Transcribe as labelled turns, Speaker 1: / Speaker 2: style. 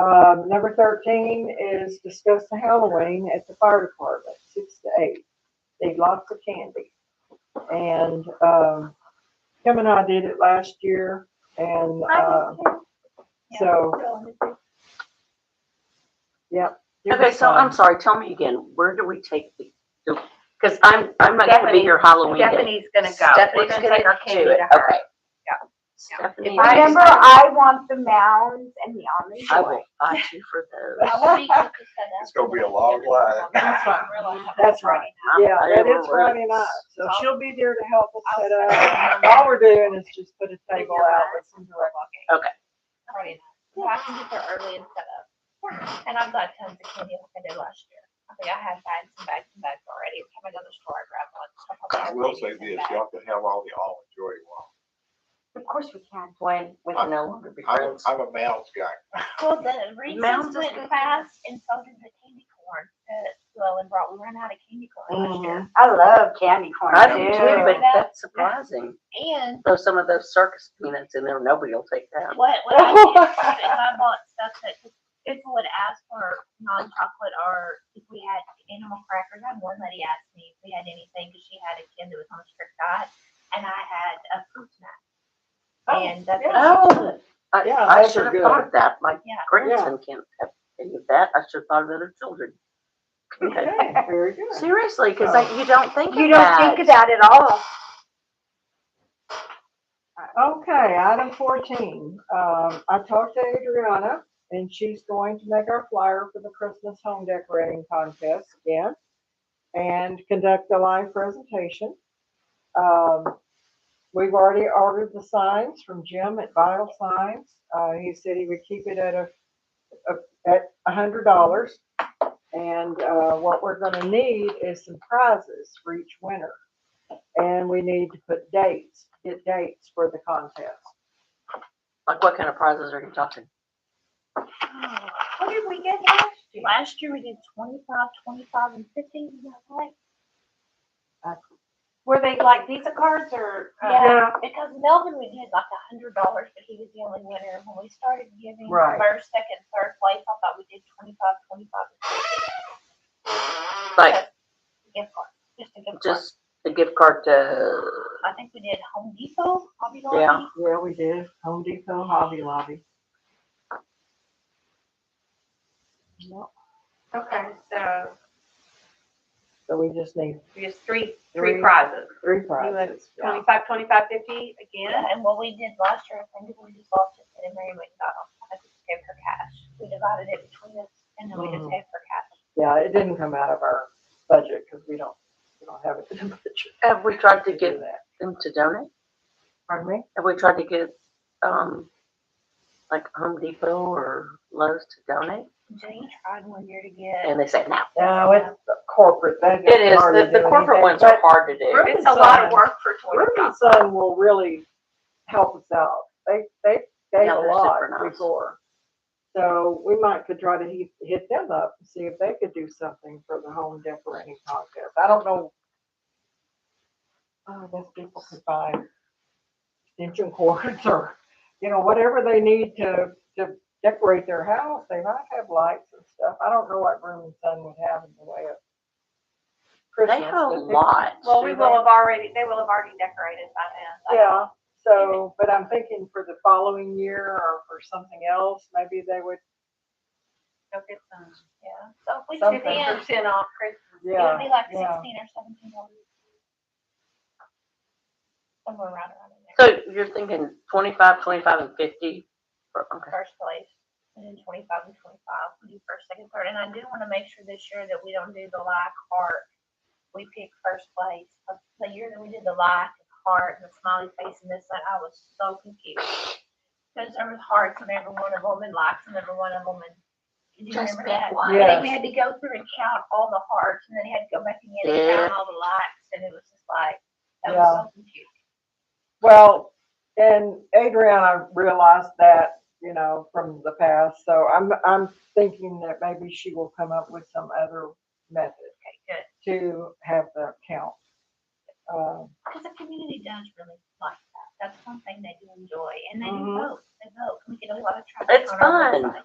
Speaker 1: Um, number thirteen is discuss the Halloween at the fire department, six to eight. They lots of candy. And, um, Kim and I did it last year and,
Speaker 2: Um,
Speaker 1: uh, so, yep.
Speaker 2: Okay, so I'm sorry, tell me again, where do we take the, because I'm, I'm not gonna be here Halloween day.
Speaker 3: Stephanie's gonna go. We're
Speaker 2: Stephanie's
Speaker 3: gonna take our
Speaker 2: do
Speaker 3: candy
Speaker 2: it,
Speaker 3: to her.
Speaker 2: Okay.
Speaker 3: Yeah.
Speaker 2: Stephanie,
Speaker 4: Remember, I want the mounds and the almond
Speaker 2: I
Speaker 4: joy.
Speaker 2: will fight you for those.
Speaker 5: It's gonna be a long line.
Speaker 1: That's right. That's right.
Speaker 2: I'm
Speaker 1: Yeah, that
Speaker 2: over
Speaker 1: is
Speaker 2: it.
Speaker 1: Friday night, so she'll be there to help us set
Speaker 3: I'll-
Speaker 1: up. And All we're doing is just put a table out with some direct.
Speaker 3: So I can get there early and set up. And I've got tons of candy like I did last year. I think I had bags and bags and bags already. Every Time I go to the store, I grab one. So I'll probably
Speaker 5: I
Speaker 3: have
Speaker 5: will say
Speaker 3: babies and
Speaker 5: this,
Speaker 3: bags.
Speaker 5: y'all can have all the almond joy you want.
Speaker 4: Of course we can.
Speaker 2: When, with
Speaker 5: I-
Speaker 2: no longer be
Speaker 5: I'm,
Speaker 2: friends.
Speaker 5: I'm a mouse guy.
Speaker 3: Well, the
Speaker 2: Mounds
Speaker 3: Reese's
Speaker 2: is
Speaker 3: went
Speaker 2: good.
Speaker 3: fast and so did the candy corn that Llewellyn brought. We ran out of candy corn
Speaker 2: Mm-hmm.
Speaker 3: last year.
Speaker 4: I love candy corn.
Speaker 2: I do
Speaker 4: too.
Speaker 2: too, but that's surprising.
Speaker 3: And
Speaker 2: Though some of those circus peanuts in there, nobody will take that.
Speaker 3: What, what I did is I bought stuff that people would ask for non-chocolate or if we had animal crackers. I had one lady asked me if we had anything because she had a kid that was on a strict diet and I had a fruit snack. And that's what I
Speaker 2: Oh, I,
Speaker 1: Yeah,
Speaker 2: I
Speaker 1: those are
Speaker 2: should have
Speaker 1: good.
Speaker 2: thought of that. My
Speaker 3: Yeah.
Speaker 2: grandson can't have any of that. I should have thought of other children.
Speaker 1: Oh, Okay, very good.
Speaker 2: Seriously, because like, Oh. you don't think
Speaker 4: You
Speaker 2: of
Speaker 4: don't think of
Speaker 2: that.
Speaker 4: that at all.
Speaker 1: Okay, item fourteen, um, I talked to Adriana and she's going to make our flyer for the Christmas home decorating contest again and conduct a live presentation. Um, we've already ordered the signs from Jim at Vital Signs. Uh, he said he would keep it at a, a- at a hundred dollars. And, uh, what we're gonna need is some prizes for each winner. And we need to put dates, get dates for the contest.
Speaker 2: Like what kind of prizes are you talking?
Speaker 3: did. What did we get last year? Last year we did twenty-five, twenty-five and fifty, is that right?
Speaker 6: Were they like Visa cards or? uh,
Speaker 3: Yeah, because Melvin, we did like a hundred dollars, but he was the only winner. When we started giving
Speaker 1: Right.
Speaker 3: first, second, third place, I thought we did twenty-five, twenty-five and
Speaker 2: Like
Speaker 3: gift card, just a gift card.
Speaker 2: just a gift card to,
Speaker 3: I think we did Home Depot, Hobby
Speaker 2: Yeah.
Speaker 3: Lobby.
Speaker 1: Yeah, we did. Home Depot, Hobby Lobby. Yep.
Speaker 6: Okay, so
Speaker 1: So we just need
Speaker 6: we have three,
Speaker 1: Three.
Speaker 6: three prizes.
Speaker 1: three
Speaker 6: You went
Speaker 1: prizes. yeah.
Speaker 6: Twenty-five, twenty-five, fifty again.
Speaker 3: Yeah, and what we did last year, I think we just all took it and Mary McDonald, I just gave her cash. We divided it between us and then we just
Speaker 1: Mhm.
Speaker 3: gave her cash.
Speaker 1: Yeah, it didn't come out of our budget because we don't, we don't have it in the budget.
Speaker 2: have we tried
Speaker 1: to
Speaker 2: to
Speaker 1: do
Speaker 2: get
Speaker 1: that.
Speaker 2: them to donate?
Speaker 1: Pardon me?
Speaker 2: Have we tried to get, um, like Home Depot or Lowe's to donate?
Speaker 3: Jenny tried one year to get.
Speaker 2: And they say no.
Speaker 1: No, it's the corporate. They
Speaker 2: It is,
Speaker 1: hardly
Speaker 2: the, the
Speaker 1: do
Speaker 2: corporate
Speaker 1: anything,
Speaker 2: ones are
Speaker 1: but
Speaker 2: hard to do.
Speaker 1: Ribbon
Speaker 6: It's a lot
Speaker 1: Sun-
Speaker 6: of work for twenty-five.
Speaker 1: Ribbon Sun will really help us out. They, they gave
Speaker 2: Yeah,
Speaker 1: a
Speaker 2: they're
Speaker 1: lot
Speaker 2: super nice.
Speaker 1: before. So we might could try to hit, hit them up and see if they could do something for the home decorating contest. I don't know. Oh, I guess people could buy extension cords or, you know, whatever they need to, to decorate their house. They might have lights and stuff. I don't know what Room and Sun would have in the way of Christmas.
Speaker 2: They have a
Speaker 1: but they-
Speaker 2: lot.
Speaker 6: Well, we
Speaker 1: Do
Speaker 6: will
Speaker 1: they?
Speaker 6: have already, they will have already decorated by then.
Speaker 1: Yeah, so, but I'm thinking for the following year or for something else, maybe they would,
Speaker 6: Go get some.
Speaker 3: Yeah, so if we
Speaker 1: Something.
Speaker 3: did
Speaker 6: Fifty
Speaker 3: it,
Speaker 6: percent off Christmas.
Speaker 1: yeah.
Speaker 3: it'd be like
Speaker 1: yeah.
Speaker 3: sixteen or seventeen dollars. Somewhere around around in there,
Speaker 2: So you're thinking twenty-five, twenty-five and fifty? for- Okay.
Speaker 3: first place. And then twenty-five and twenty-five, we do first, second, third. And I do want to make sure this year that we don't do the like heart. We pick first place. Uh, The year that we did the like and heart and the smiley face and this, that, I was so confused. Because there was hearts in every one of them and likes in every one of them and. Do you
Speaker 2: Just
Speaker 3: remember
Speaker 2: pick
Speaker 3: that?
Speaker 2: one.
Speaker 3: I think
Speaker 1: Yes.
Speaker 3: we had to go through and count all the hearts and then had to go back again and
Speaker 2: Yeah.
Speaker 3: count all the likes and it was just like, that
Speaker 1: Yeah.
Speaker 3: was so confusing.
Speaker 1: Well, and Adriana realized that, you know, from the past, so I'm, I'm thinking that maybe she will come up with some other method
Speaker 3: Okay,
Speaker 1: to have the count. Um,
Speaker 3: Because the community does really like that. That's one thing they do enjoy and they
Speaker 1: Mhm.
Speaker 3: do vote. They vote. We get a lot of traffic.
Speaker 2: It's
Speaker 3: on our
Speaker 2: fun.
Speaker 3: website.